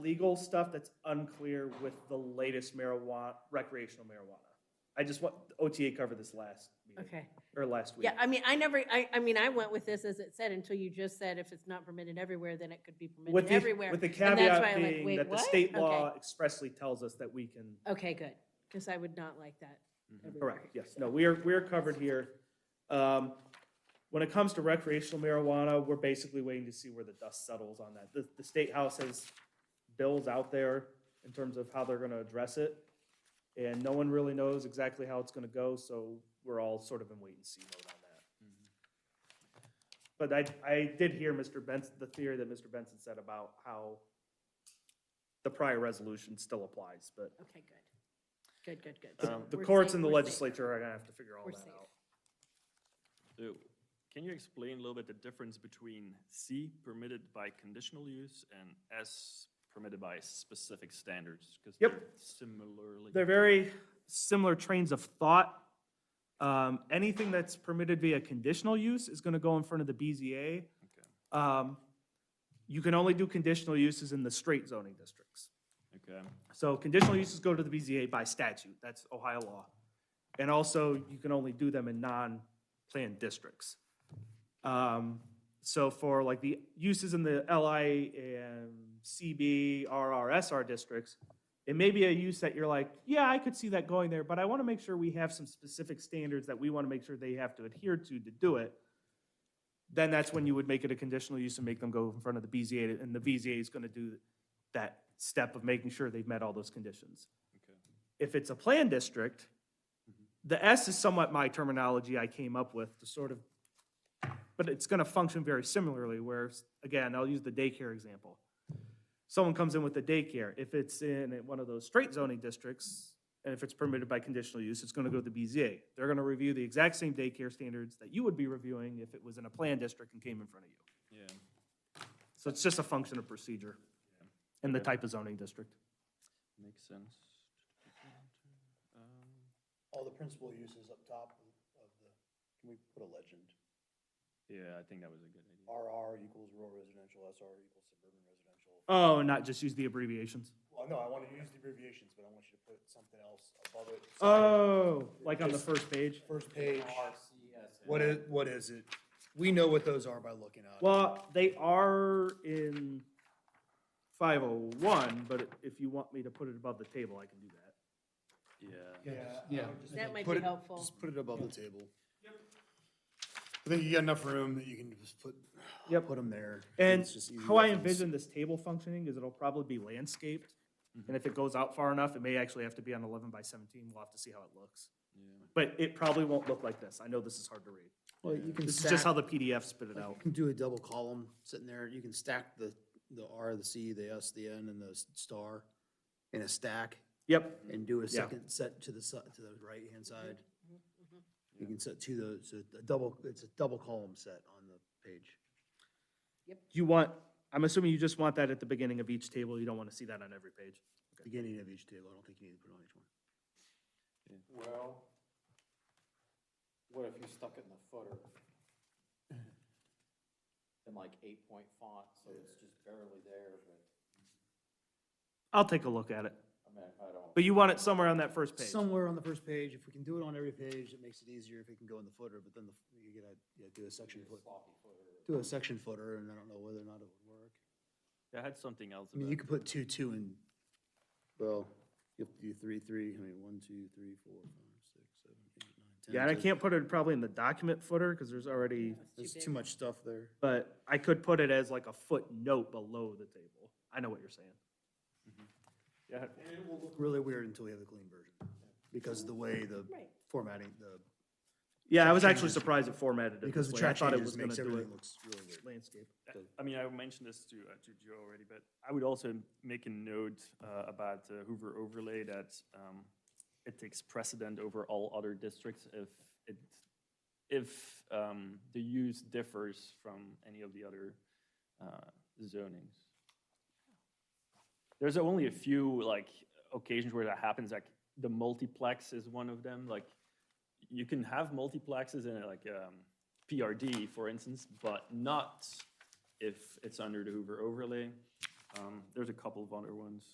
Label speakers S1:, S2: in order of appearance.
S1: legal stuff that's unclear with the latest marijuana, recreational marijuana. I just want, OTA covered this last meeting,
S2: Okay.
S1: or last week.
S2: Yeah, I mean, I never, I, I mean, I went with this as it said until you just said if it's not permitted everywhere, then it could be
S1: With
S2: permitted
S1: the,
S2: everywhere.
S1: with the
S2: that's why
S1: caveat
S2: I'm like,
S1: being
S2: "Wait,
S1: that the
S2: what?"
S1: state
S2: Okay.
S1: law expressly tells us that we can,
S2: Okay, good, because I would not like that everywhere.
S1: Mm-hmm. correct, yes, no, we are, we are covered here. Um, When it comes to recreational marijuana, we're basically waiting to see where the dust settles on that. The, the state house has bills out there in terms of how they're gonna address it. And no one really knows exactly how it's gonna go, so we're all sort of in wait and see mode on that. But I, I did hear Mr. Benson, the theory that Mr. Benson said about how the prior resolution still applies, but
S2: Okay, good. Good, good, good.
S1: the-
S2: So
S1: Um, the
S2: we're
S1: courts and
S2: safe-
S1: the
S2: we're safe.
S1: legislature are gonna have to figure all
S2: We're
S1: that
S2: safe.
S1: out.
S3: So, can you explain a little bit the difference between C permitted by conditional use and S permitted by specific standards? Because
S1: Yep.
S3: they're similarly.
S1: They're very similar trains of thought. Um, anything that's permitted via conditional use is gonna go in front of the BZA.
S3: Okay,
S1: Um, you can only do conditional uses in the straight zoning districts.
S3: Okay,
S1: So conditional uses go to the BZA by statute, that's Ohio law. And also, you can only do them in non-planned districts. Um, So for like the uses in the LI and CB, RRSR districts, it may be a use that you're like, yeah, I could see that going there, but I want to make sure we have some specific standards that we want to make sure they have to adhere to to do it. Then that's when you would make it a conditional use and make them go in front of the BZA, and the BZA is going to do that step of making sure they've met all those conditions.
S3: okay.
S1: If it's a plan district, the S is somewhat my terminology I came up with to sort of, but it's gonna function very similarly, where, s- again, I'll use the daycare example. Someone comes in with a daycare, if it's in one of those straight zoning districts, and if it's permitted by conditional use, it's gonna go to the BZA. They're gonna review the exact same daycare standards that you would be reviewing if it was in a plan district and came in front of you.
S3: Yeah,
S1: So it's just a function of procedure and the type of zoning district.
S3: makes sense. Um,
S4: all the principal uses up top of the, can we put a legend?
S3: Yeah, I think that was a good idea.
S4: RR equals rural residential, SR equals suburban residential.
S1: Oh, not just use the abbreviations.
S4: Well, no, I want to use the abbreviations, but I want you to put something else above it.
S1: Oh, like on the first page?
S4: First page. What is, what is it? We know what those are by looking at it.
S1: Well, they are in five oh one, but if you want me to put it above the table, I can do that.
S3: Yeah,
S4: Yeah.
S5: Yeah.
S6: Um,
S2: That might
S4: Put
S2: be
S4: it-
S2: helpful.
S4: Just put it above the table. I think you got enough room that you can just put,
S1: Yep.
S4: put them there.
S1: And
S4: It's just easy
S1: how I
S4: reference.
S1: envision this table functioning is it'll probably be landscaped. And if it goes out far enough, it may actually have to be on eleven by seventeen. We'll have to see how it looks.
S3: yeah.
S1: But it probably won't look like this. I know this is hard to read.
S4: Well, you can
S1: This is just how
S4: stack,
S1: the PDF spit it out.
S4: you can do a double column sitting there. You can stack the, the R, the C, the S, the N, and the s- star in a stack.
S1: Yep,
S4: and do a
S1: Yeah.
S4: second set to the, si- to the right-hand side. You can set two those, a- a double, it's a double column set on the page.
S1: you want, I'm assuming you just want that at the beginning of each table. You don't want to see that on every page.
S4: Beginning of each table, I don't think you need to put it on each one.
S6: Well, what if you stuck it in the footer? In like eight point font, so it's just barely there, but,
S1: I'll take a look at it.
S6: I mean, if I don't.
S1: But you want it somewhere on that first page.
S4: Somewhere on the first page, if we can do it on every page, it makes it easier if it can go in the footer, but then the- you gotta, yeah, do a section foot,
S6: Sloppy footer.
S4: do a section footer, and I don't know whether or not it would work.
S3: I had something else
S4: I mean, you
S3: about,
S4: could put two, two, and, well, you have to do three, three, I mean, one, two, three, four, five, six, seven, eight, nine, ten.
S1: Yeah, and I
S4: so
S1: can't put it probably in the document footer because there's already,
S4: There's too much stuff there.
S1: but I could put it as like a footnote below the table. I know what you're saying.
S3: yeah, I had-
S4: really weird until we have the clean version, because of the way the
S2: Right.
S4: formatting, the,
S1: Yeah, I was actually surprised it formatted it
S4: because
S1: this
S4: the
S1: way. I
S4: track
S1: thought it
S4: changes
S1: was gonna
S4: makes
S1: do it
S4: everything looks really weird.
S1: landscape.
S3: I mean, I mentioned this to, uh, to Joe already, but I would also make a note uh, about the Hoover overlay that um, it takes precedent over all other districts if it, if um, the use differs from any of the other uh, zonings. There's only a few, like, occasions where that happens, like, the multiplex is one of them, like, you can have multiplexes in, like, um, PRD, for instance, but not if it's under the Hoover overlay. Um, There's a couple of other ones.